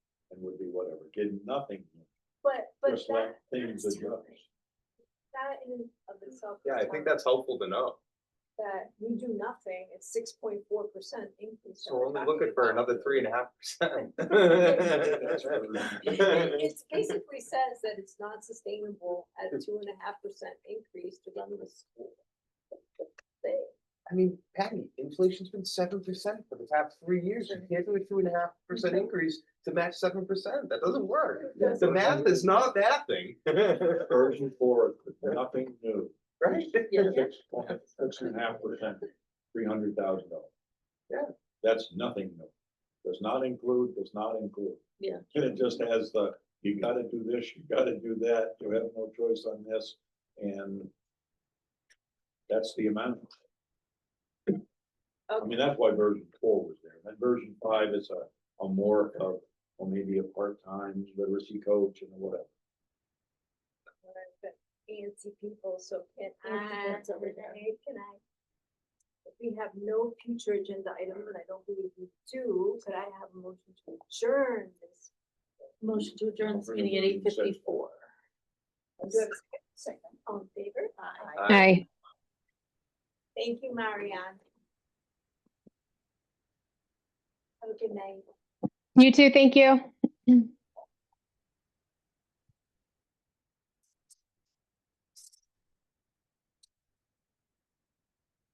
whatever, getting nothing. But, but Just that. like things that's that you- telling. That in and of itself. is Yeah, I think telling that's helpful to know. That we do nothing, it's six point four percent increase. that So we're only talking looking for about. another three and a half percent. That's really- It basically says that it's not sustainable at two and a half percent increase to run the school. They, I mean, Patty, inflation's been seven percent for the past three years. You can't do a two and a half percent increase to match seven percent. That doesn't work. Yeah. The math is not a bad thing, Urging forward, nothing new, right? six point, six and a half percent, three hundred thousand dollars. Yeah. That's nothing new, does not include, does not include. Yeah. And it just has the, you gotta do this, you gotta do that, you have no choice on this, and that's the amount. I mean, that's why version four was there, and version five is a, a more of, or maybe a part-time literacy coach and whatever. whatever, but fancy people, so can Fancy I, pants over there. Renee, can I? If we have no future agenda items, and I don't believe we do, could I have a motion to adjourn this? Motion to adjourn this meeting at eight fifty-four. Do I have a second? Second, all in favor? Uh, Hi. Thank you, Marianne. Have a good night. You too. Thank you.